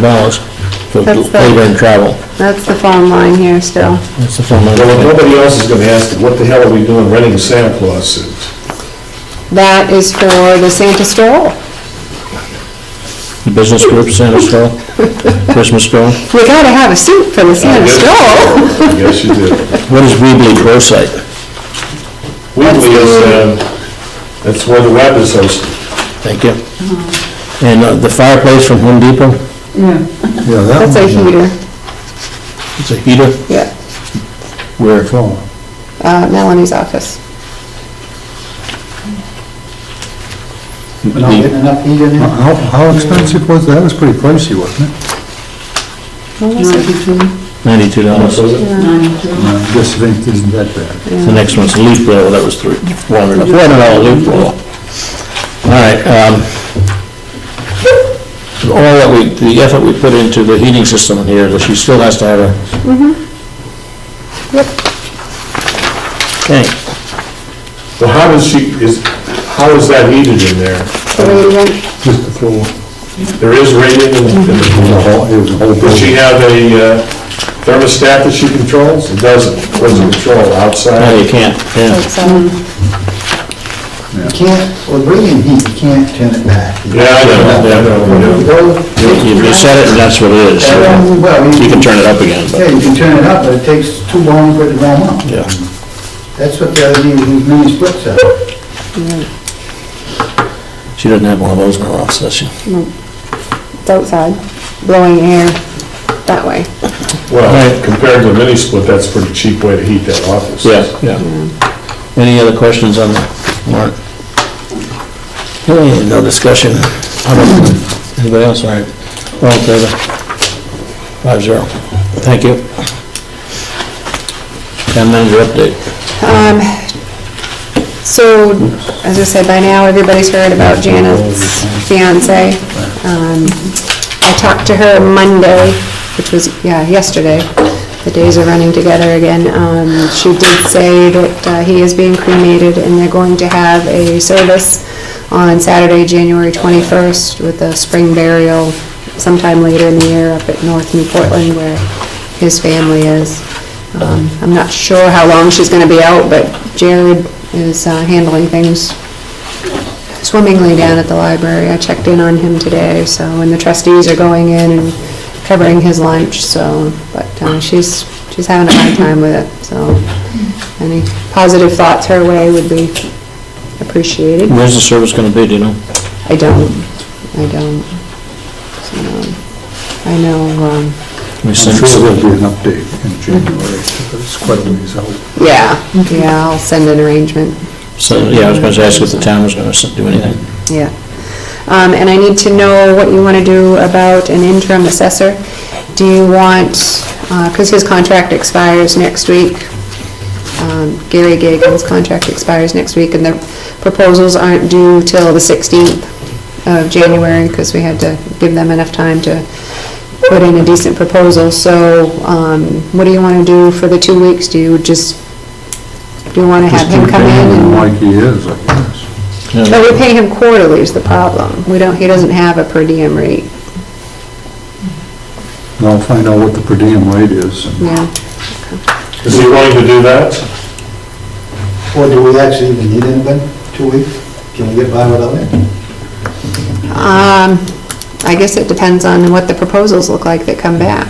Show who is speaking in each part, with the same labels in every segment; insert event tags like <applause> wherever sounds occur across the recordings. Speaker 1: dollars for
Speaker 2: That's the-
Speaker 1: labor and travel.
Speaker 2: That's the phone line here still.
Speaker 1: That's the phone
Speaker 3: Well, if
Speaker 1: number.
Speaker 3: nobody else is gonna ask, what the hell are we doing renting Santa Claus suits?
Speaker 2: That is for the Santa stroll.
Speaker 1: Business group, Santa Stroll, Christmas Stroll.
Speaker 2: We gotta have a suit for the Santa stroll.
Speaker 3: <laughs> I guess you do.
Speaker 1: What is Weebly Pro Site?
Speaker 3: Weebly is, um, that's where the web is hosted.
Speaker 1: Thank you. And uh, the fireplace from Home Depot,
Speaker 4: Yeah, that
Speaker 2: That's a heater,
Speaker 1: it's a heater
Speaker 2: yeah,
Speaker 1: where,
Speaker 4: phone.
Speaker 2: uh, Melanie's office.
Speaker 5: Not getting enough heat in there?
Speaker 4: How, how expensive was that? That was pretty pricey, wasn't it?
Speaker 2: What was it?
Speaker 1: ninety-two dollars.
Speaker 3: So is it?
Speaker 4: No, This thing isn't that bad.
Speaker 1: The next one's a leaf blower, that was three, four hundred, four hundred dollar leaf blower. All right, um, all that we, the effort we put into the heating system here, that she still has to have a.
Speaker 2: Yep.
Speaker 1: Okay,
Speaker 3: Well, how does she, is, how is that heated in there?
Speaker 2: The radiant.
Speaker 4: Just the floor.
Speaker 3: There is radiant in in
Speaker 4: It was a
Speaker 3: the,
Speaker 4: whole, it was a whole
Speaker 3: does she
Speaker 4: building.
Speaker 3: have a uh, thermostat that she controls? It doesn't, what does it control,
Speaker 1: no, you
Speaker 3: outside?
Speaker 1: can't, yeah.
Speaker 2: It's, um,
Speaker 5: You can't, well, bringing heat, you can't turn it back.
Speaker 3: Yeah, I know, yeah, I know, I know.
Speaker 1: You you set it and that's what it is. You can turn it up again,
Speaker 5: Yeah,
Speaker 1: but,
Speaker 5: you can turn it up, but it takes too long for it to warm up.
Speaker 1: yeah.
Speaker 5: That's what the LED, these mini splits are.
Speaker 1: She doesn't have one of those in her office, does she?
Speaker 2: It's outside, blowing air that way.
Speaker 3: Well, compared to a mini split, that's a pretty cheap way to heat that office.
Speaker 1: yeah. Mm-hmm. Any other questions on the warrant? Okay, no discussion. How about- Anybody else, all right? All in favor? Five zero. Thank you. Town manager update.
Speaker 2: Um, so, as I said, by now, everybody's heard about Janet's fiance. Um, I talked to her Monday, which was, yeah, yesterday. The days are running together again. Um, she did say that uh, he is being cremated and they're going to have a service on Saturday, January 21st with a spring burial sometime later in the year up at North New Portland where his family is. Um, I'm not sure how long she's going to be out, but Jared is uh, handling things swimmingly down at the library. I checked in on him today, so, and the trustees are going in and covering his lunch, so, but uh, she's, she's having a hard time with it, so any positive thoughts her way would be appreciated.
Speaker 1: Where's the service gonna be, do you know?
Speaker 2: I don't, I don't. So, I know, um,
Speaker 1: We
Speaker 4: I'm
Speaker 1: sent-
Speaker 4: sure there'll be an update in January, but it's quite a ways out.
Speaker 2: yeah, yeah, I'll send an arrangement.
Speaker 1: So, yeah, I was gonna ask if the town was gonna do anything.
Speaker 2: Yeah. Um, And I need to know what you want to do about an interim assessor. Do you want, because his contract expires next week, um, Gary Gagel's contract expires next week, and the proposals aren't due till the 16th of January, because we had to give them enough time to put in a decent proposal. So um, what do you want to do for the two weeks? Do you just, do you want to have
Speaker 4: Just
Speaker 2: him
Speaker 4: keep
Speaker 2: come in?
Speaker 4: paying
Speaker 2: and-
Speaker 4: him Like he is, I guess.
Speaker 1: Yeah.
Speaker 2: but we pay him quarterly is the problem. We don't, he doesn't have a per diem rate,
Speaker 4: And I'll find out what the per diem rate is.
Speaker 2: yeah.
Speaker 3: Is he willing to do that?
Speaker 5: Or do we actually even need anybody? Two weeks? Can we get by without it?
Speaker 2: Um, I guess it depends on what the proposals look like that come back.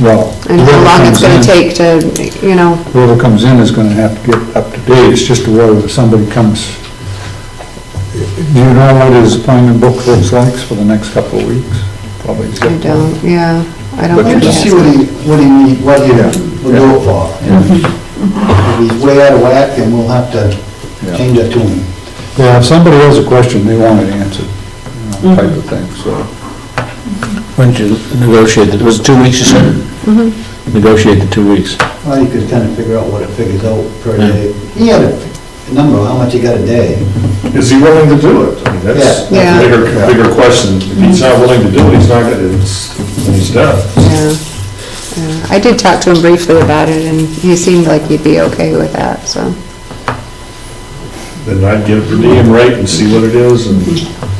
Speaker 4: Well.
Speaker 2: And how long it's gonna take to, you know,
Speaker 4: Whoever comes in is gonna have to get up to date, it's just whether somebody comes. Do you know what his appointment book looks like for the next couple of weeks? Probably. zip
Speaker 2: I
Speaker 4: one.
Speaker 2: don't, yeah, I don't
Speaker 4: But
Speaker 2: think
Speaker 4: you
Speaker 5: Just
Speaker 2: that's
Speaker 5: see what he, what he need, what he
Speaker 4: Yeah.
Speaker 5: will do it for. If he's way out of whack, then we'll have to
Speaker 4: Yeah.
Speaker 5: change our tune.
Speaker 4: Yeah, if somebody has a question, they want it answered, you know, type of thing, so.
Speaker 1: When did you negotiate, it was it two weeks you said? Negotiate the two weeks.
Speaker 5: Well, you could kind of figure out what it figures out per day. He had a a number, how much he got a day.
Speaker 3: Is he willing to do it? I mean, that's
Speaker 2: Yeah.
Speaker 3: a bigger, bigger question. If he's not willing to do it, he's not gonna, it's, he's done.
Speaker 2: Yeah. Yeah. I did talk to him briefly about it, and he seemed like he'd be okay with that, so.
Speaker 3: Then I'd get a per diem rate and see what it is and